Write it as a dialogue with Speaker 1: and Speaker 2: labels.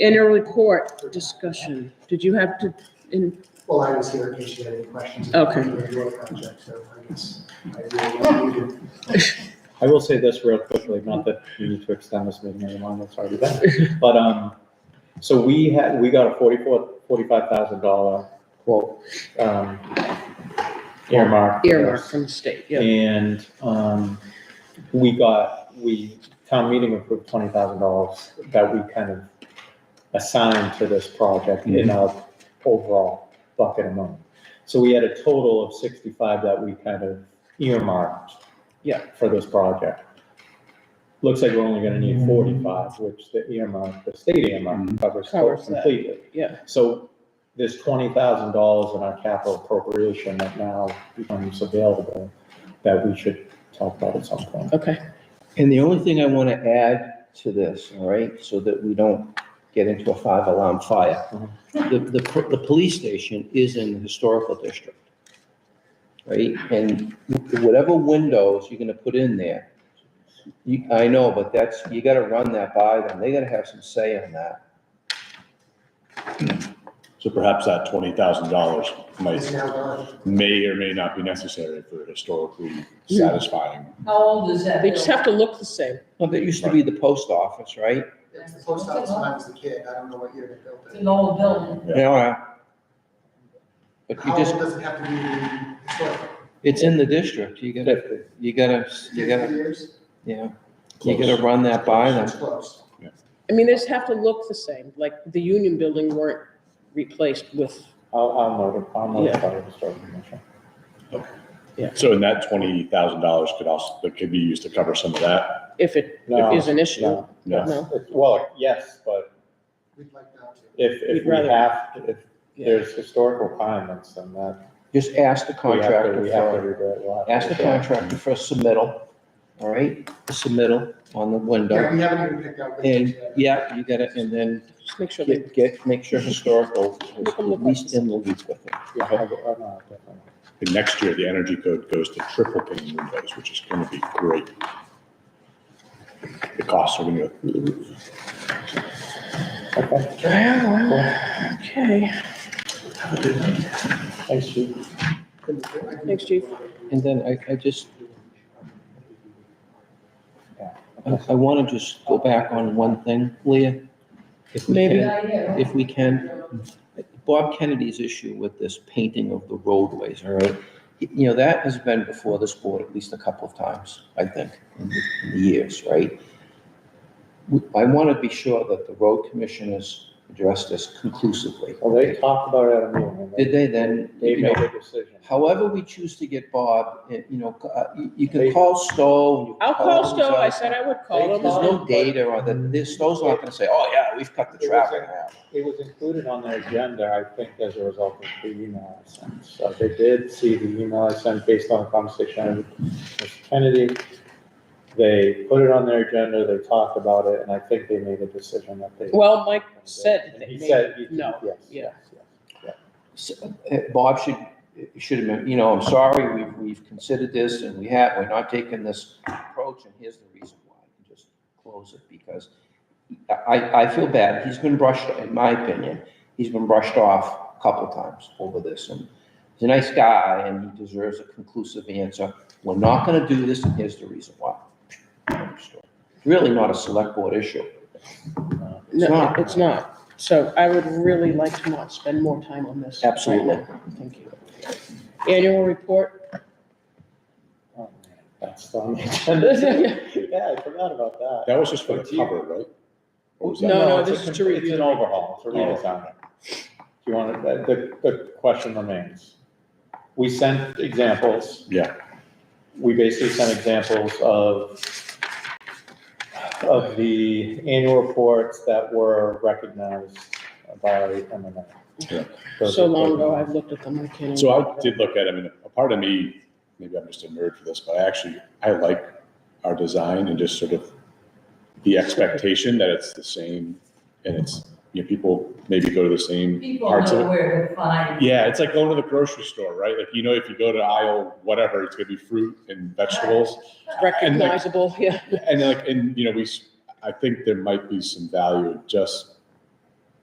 Speaker 1: Inner report discussion. Did you have to, in,
Speaker 2: Well, I was here in case you had any questions.
Speaker 1: Okay.
Speaker 2: about the road project, so I guess I really don't need to-
Speaker 3: I will say this real quickly, not that we need to extend this meeting any longer, sorry about that. But, um, so we had, we got a forty-four, forty-five thousand dollar quote, um, earmark.
Speaker 1: earmark from the state, yeah.
Speaker 3: And, um, we got, we, town meeting approved twenty thousand dollars that we kind of assigned to this project in our overall bucket of money. So we had a total of sixty-five that we kind of earmarked. Yeah. For this project. Looks like we're only gonna need forty-five, which the earmark, the state earmark covers
Speaker 1: Covers that.
Speaker 3: completely.
Speaker 1: Yeah.
Speaker 3: So there's twenty thousand dollars in our capital appropriation that now becomes available that we should talk about at some point.
Speaker 1: Okay,
Speaker 4: And the only thing I want to add to this, all right, so that we don't get into a five alarm fire.
Speaker 3: Uh-huh.
Speaker 4: The, the, po- the police station is in the historical district. Right, and whatever windows you're gonna put in there, you, I know, but that's, you gotta run that by them, they gotta have some say on that.
Speaker 5: So perhaps that twenty thousand dollars
Speaker 2: It's
Speaker 5: might,
Speaker 2: now gone.
Speaker 5: may or may not be necessary for historically satisfying.
Speaker 6: How old is that?
Speaker 1: they just have to look the same.
Speaker 4: Well, that used to be the post office, right?
Speaker 2: It's the post office when I was a kid. I don't know what year they built
Speaker 6: It's
Speaker 2: it.
Speaker 6: an old building.
Speaker 5: Yeah.
Speaker 4: Yeah. uh, But you
Speaker 2: How old
Speaker 4: just,
Speaker 2: does it have to be the historic?
Speaker 4: it's in the district, you gotta, you gotta,
Speaker 2: Fifty
Speaker 4: you gotta,
Speaker 2: years?
Speaker 4: yeah, you gotta run that by them.
Speaker 2: It's close.
Speaker 1: I mean, they just have to look the same, like the union building weren't replaced with,
Speaker 3: I'll, I'll note it, I'll
Speaker 1: Yeah.
Speaker 3: notify the historical commission.
Speaker 5: So and that twenty thousand dollars could also, that could be used to cover some of that.
Speaker 1: if it
Speaker 3: No,
Speaker 1: is an issue.
Speaker 3: no.
Speaker 5: Yeah.
Speaker 1: No,
Speaker 3: It- Well, yes, but
Speaker 2: We'd like that too.
Speaker 3: if, if
Speaker 1: We'd
Speaker 3: we
Speaker 1: rather-
Speaker 3: have, if
Speaker 1: Yeah.
Speaker 3: there's historical requirements, then that.
Speaker 4: Just ask the
Speaker 3: we have to-
Speaker 4: contractor
Speaker 3: We have to
Speaker 4: for,
Speaker 3: redo it. We'll have to
Speaker 4: ask the
Speaker 3: redo it.
Speaker 4: contractor for a submittal, all right? A submittal on the
Speaker 2: Yeah,
Speaker 4: window.
Speaker 2: we haven't even picked out. the
Speaker 4: And,
Speaker 2: yet.
Speaker 4: yeah, you gotta, and then
Speaker 1: just make sure they,
Speaker 4: get, get, make sure historical is
Speaker 1: Look
Speaker 4: at
Speaker 1: on the
Speaker 4: least in the loop with it.
Speaker 3: Yeah, I will- I know, definitely.
Speaker 5: And next year, the energy code goes to triple pane windows, which is gonna be great. The costs are gonna go through the roof.
Speaker 3: Okay,
Speaker 1: okay,
Speaker 3: thanks, chief.
Speaker 1: thanks, chief.
Speaker 4: And then I, I just,
Speaker 3: Yeah.
Speaker 4: I, I wanna just go back on one thing, Leah. If we
Speaker 1: Maybe.
Speaker 4: can, if we can. Bob Kennedy's issue with this painting of the roadways, all right? You know, that has been before this board at least a couple of times, I think, in the in the years, right? We- I want to be sure that the road commissioners address this conclusively.
Speaker 3: Well, they talked about it at a meeting. and
Speaker 4: Did they then,
Speaker 3: They
Speaker 4: you know,
Speaker 3: made a decision.
Speaker 4: however we choose to get Bob, eh, you know, uh, you- you
Speaker 3: They-
Speaker 4: can call Stowe. you can
Speaker 1: I'll call
Speaker 4: all these
Speaker 1: Stowe, I
Speaker 4: other-
Speaker 1: said I would call
Speaker 4: There's
Speaker 1: him.
Speaker 4: no data on that, This- Stowe's not going to say, oh, yeah, we've cut the traffic out.
Speaker 3: It was included on their agenda, I think, as a result of the email I sent. So they did see the email I sent based on a conversation with Mr. Kennedy. They put it on their agenda, they talked about it, and I think they made a decision that they.
Speaker 1: Well, Mike said
Speaker 3: And
Speaker 1: that
Speaker 3: He
Speaker 1: they
Speaker 3: said,
Speaker 1: made,
Speaker 3: he-
Speaker 1: no,
Speaker 3: yes,
Speaker 1: yeah.
Speaker 3: yes, yes.
Speaker 4: s- uh, Bob should, should have been, you know, I'm sorry, we've, we've considered this and we have, we're not taking this approach and here's the reason why. And Just close it because I, I feel bad. He's been brushed, in my opinion, he's been brushed off a couple times over this. And he's a nice guy and he deserves a conclusive answer. We're not gonna do this and here's the reason why. Really not a select board issue.
Speaker 1: No,
Speaker 4: not.
Speaker 1: it's not. So I would really like to not spend more time on this. right
Speaker 4: Absolutely.
Speaker 1: now. Thank you. Annual report?
Speaker 3: Oh, man, That's on the agenda. Yeah, I forgot about that.
Speaker 5: That was just for the cover, right? Or was that-
Speaker 1: No, no,
Speaker 3: it's a
Speaker 1: this is
Speaker 3: con-
Speaker 1: to review
Speaker 3: It's an
Speaker 1: the- Oh.
Speaker 3: overhaul, it's a redesign. Do you want, to- the, the the question remains. We sent examples.
Speaker 5: Yeah,
Speaker 3: we basically sent examples of, of the annual reports that were recognized by MMA.
Speaker 5: Yeah.
Speaker 1: So long ago, I've looked at them, I can't.
Speaker 5: so
Speaker 1: even-
Speaker 5: I did look at, I mean, a part of me, maybe I'm just a nerd for this, but I actually, I like our design and just sort of the expectation that it's the same and it's, you know, people maybe go to the same
Speaker 6: People
Speaker 5: parts of
Speaker 6: know
Speaker 5: it.
Speaker 6: where to find.
Speaker 5: Yeah, it's like going to the grocery store, right? Like, you know, if you go to aisle whatever, it's gonna be fruit and vegetables.
Speaker 1: Recognizable, yeah.
Speaker 5: And like, and you know, we, s- I think there might be some value in just